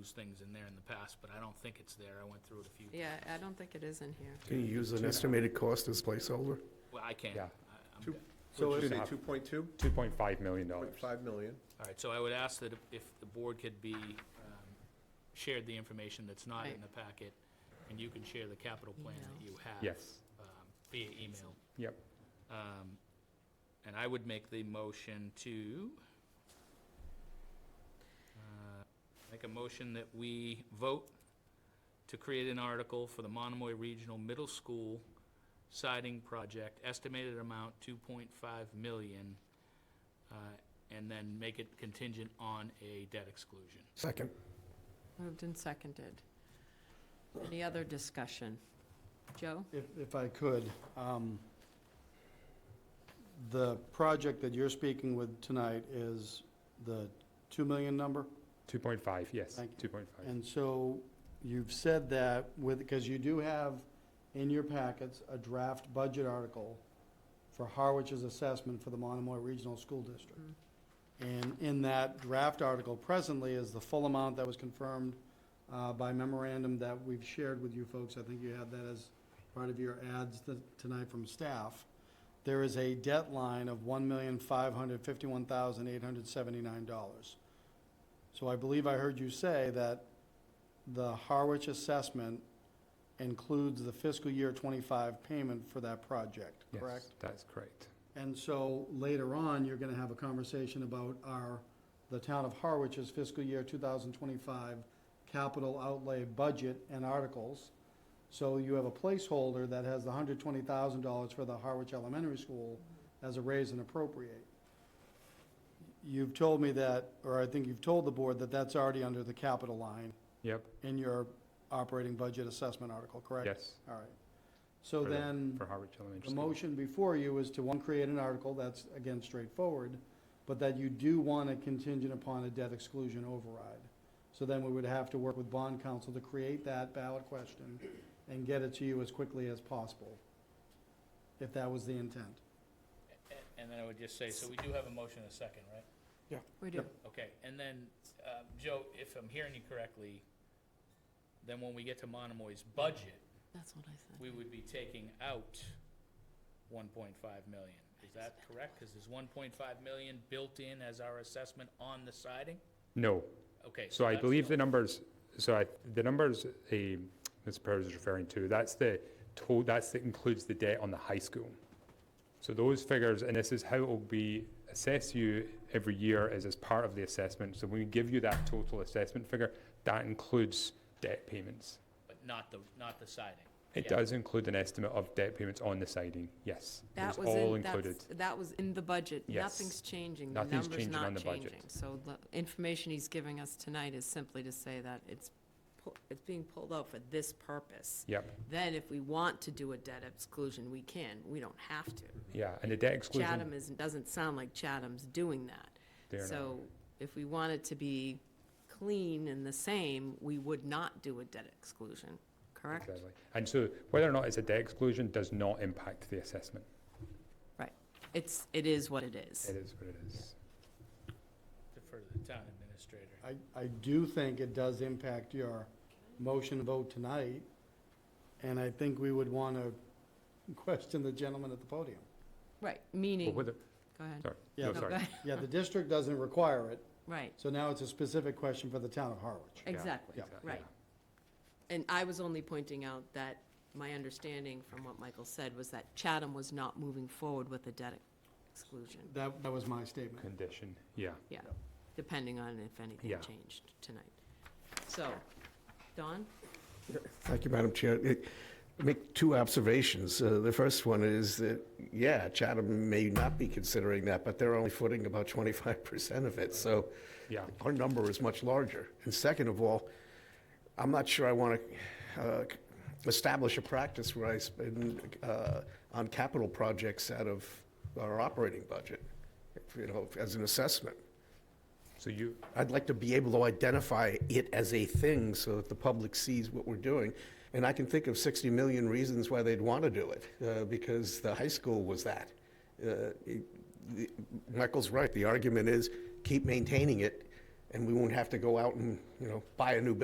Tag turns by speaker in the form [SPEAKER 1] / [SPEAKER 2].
[SPEAKER 1] lose things in there in the past, but I don't think it's there. I went through it a few.
[SPEAKER 2] Yeah, I don't think it is in here.
[SPEAKER 3] Can you use an estimated cost as placeholder?
[SPEAKER 1] Well, I can't.
[SPEAKER 4] Yeah.
[SPEAKER 1] I- I'm
[SPEAKER 5] Two-
[SPEAKER 1] good.
[SPEAKER 5] So
[SPEAKER 4] Two
[SPEAKER 5] let's
[SPEAKER 4] and a
[SPEAKER 5] say
[SPEAKER 4] half.
[SPEAKER 5] two point two,
[SPEAKER 4] $2.5 million.
[SPEAKER 5] point five million.
[SPEAKER 1] All right, so I would ask that if the board could be, um, shared the information that's not in
[SPEAKER 2] Right.
[SPEAKER 1] the packet, and you can share the capital plan that you have.
[SPEAKER 4] Yes,
[SPEAKER 1] um, Via email.
[SPEAKER 4] yep.
[SPEAKER 1] Um, And I would make the motion to, uh, make a motion that we vote to create an article for the Monomoy Regional Middle School siding project, estimated amount 2.5 million, uh, and then make it contingent on a debt exclusion.
[SPEAKER 3] Second.
[SPEAKER 2] Moved and seconded. Any other discussion? Joe?
[SPEAKER 6] If, if I could, um, the project that you're speaking with tonight is the 2 million number?
[SPEAKER 4] 2.5, yes,
[SPEAKER 6] Thank
[SPEAKER 4] 2.5.
[SPEAKER 6] And so you've said that with, because you do have in your packets a draft budget article for Harwich's assessment for the Monomoy Regional School District.
[SPEAKER 2] Mm,
[SPEAKER 6] And in that draft article presently is the full amount that was confirmed uh, by memorandum that we've shared with you folks. I think you had that as part of your ads th- tonight from staff. There is a debt line of $1,551,879. So I believe I heard you say that the Harwich assessment includes the fiscal year twenty-five payment for that project,
[SPEAKER 4] Yes,
[SPEAKER 6] correct?
[SPEAKER 4] That's correct.
[SPEAKER 6] And so later on, you're gonna have a conversation about our, the town of Harwich's fiscal year two thousand twenty-five capital outlay budget and articles. So you have a placeholder that has the hundred twenty thousand dollars for the Harwich Elementary School as a raise and appropriate. You've told me that, or I think you've told the board that that's already under the capital line
[SPEAKER 4] Yep,
[SPEAKER 6] in your operating budget assessment article, correct?
[SPEAKER 4] yes.
[SPEAKER 6] All right. So
[SPEAKER 4] for the-
[SPEAKER 6] then.
[SPEAKER 4] For Harwich Elementary
[SPEAKER 6] The
[SPEAKER 4] School.
[SPEAKER 6] motion before you is to, one, create an article, that's, again, straightforward, but that you do want a contingent upon a debt exclusion override. So then we would have to work with bond counsel to create that ballot question and get it to you as quickly as possible, if that was the intent.
[SPEAKER 1] A- And then I would just say, so we do have a motion and a second, right?
[SPEAKER 2] We do.
[SPEAKER 1] Okay, and then, uh, Joe, if I'm hearing you correctly, then when we get to Monomoy's budget,
[SPEAKER 2] That's what I
[SPEAKER 1] we would be taking out one point five million. Is that correct? Because there's one point five million built in as our assessment on the siding?
[SPEAKER 4] No,
[SPEAKER 1] Okay.
[SPEAKER 4] so I
[SPEAKER 1] that's
[SPEAKER 4] believe
[SPEAKER 1] the-
[SPEAKER 4] the numbers, so I, the numbers eh, Ms. Perez is referring to, that's the, to- that's, that includes the debt on the high school. So those figures, and this is how it will be, assess you every year is as part of the assessment. So when we give you that total assessment figure, that includes debt payments.
[SPEAKER 1] But not the, not the siding.
[SPEAKER 4] It
[SPEAKER 1] Yeah.
[SPEAKER 4] does include an estimate of debt payments on the siding, yes. It
[SPEAKER 2] That
[SPEAKER 4] is
[SPEAKER 2] was
[SPEAKER 4] all
[SPEAKER 2] in,
[SPEAKER 4] included.
[SPEAKER 2] that's, that was in the budget.
[SPEAKER 4] Yes.
[SPEAKER 2] Nothing's changing. The
[SPEAKER 4] Nothing's
[SPEAKER 2] number's
[SPEAKER 4] changing on
[SPEAKER 2] not
[SPEAKER 4] the budget.
[SPEAKER 2] changing. So the information he's giving us tonight is simply to say that it's, pu- it's being pulled out for this purpose.
[SPEAKER 4] Yep,
[SPEAKER 2] Then if we want to do a debt exclusion, we can. We don't have to.
[SPEAKER 4] yeah, and the debt
[SPEAKER 2] Chatham
[SPEAKER 4] exclusion,
[SPEAKER 2] is, doesn't sound like Chatham's doing that.
[SPEAKER 4] They're not.
[SPEAKER 2] So if we want it to be clean and the same, we would not do a debt exclusion, correct?
[SPEAKER 4] exactly. And so whether or not it's a debt exclusion does not impact the assessment.
[SPEAKER 2] Right. It's, it is what it is.
[SPEAKER 4] It is what it is.
[SPEAKER 1] Defer to the town administrator.
[SPEAKER 6] I, I do think it does impact your motion vote tonight, and I think we would want to question the gentleman at the podium.
[SPEAKER 2] Right,
[SPEAKER 4] Well,
[SPEAKER 2] meaning, go
[SPEAKER 4] whether,
[SPEAKER 2] ahead.
[SPEAKER 4] sorry,
[SPEAKER 6] Yeah,
[SPEAKER 4] no,
[SPEAKER 2] No,
[SPEAKER 4] sorry.
[SPEAKER 2] go ahead.
[SPEAKER 6] Yeah, the district doesn't require it,
[SPEAKER 2] Right,
[SPEAKER 6] So now it's a specific question for the town of Harwich.
[SPEAKER 2] exactly,
[SPEAKER 6] yeah,
[SPEAKER 2] right. And I was only pointing out that my understanding from what Michael said was that Chatham was not moving forward with a debt exclusion.
[SPEAKER 6] That, that was my statement.
[SPEAKER 4] Condition, yeah.
[SPEAKER 2] Yeah, depending on if anything
[SPEAKER 4] Yeah.
[SPEAKER 2] changed tonight. So, Don?
[SPEAKER 3] Thank you, Madam Chair. It- Make two observations. Uh, The first one is that, yeah, Chatham may not be considering that, but they're only footing about 25% of it, so
[SPEAKER 4] Yeah.
[SPEAKER 3] our number is much larger. And second of all, I'm not sure I want to establish a practice where I spend uh, on capital projects out of our operating budget, you know, as an assessment.
[SPEAKER 4] So you,
[SPEAKER 3] I'd like to be able to identify it as a thing so that the public sees what we're doing. And I can think of 60 million reasons why they'd want to do it, uh, because the high school was that. Uh, it- the- Michael's right, the argument is, keep maintaining it, and we won't have to go out and, you know, buy a new building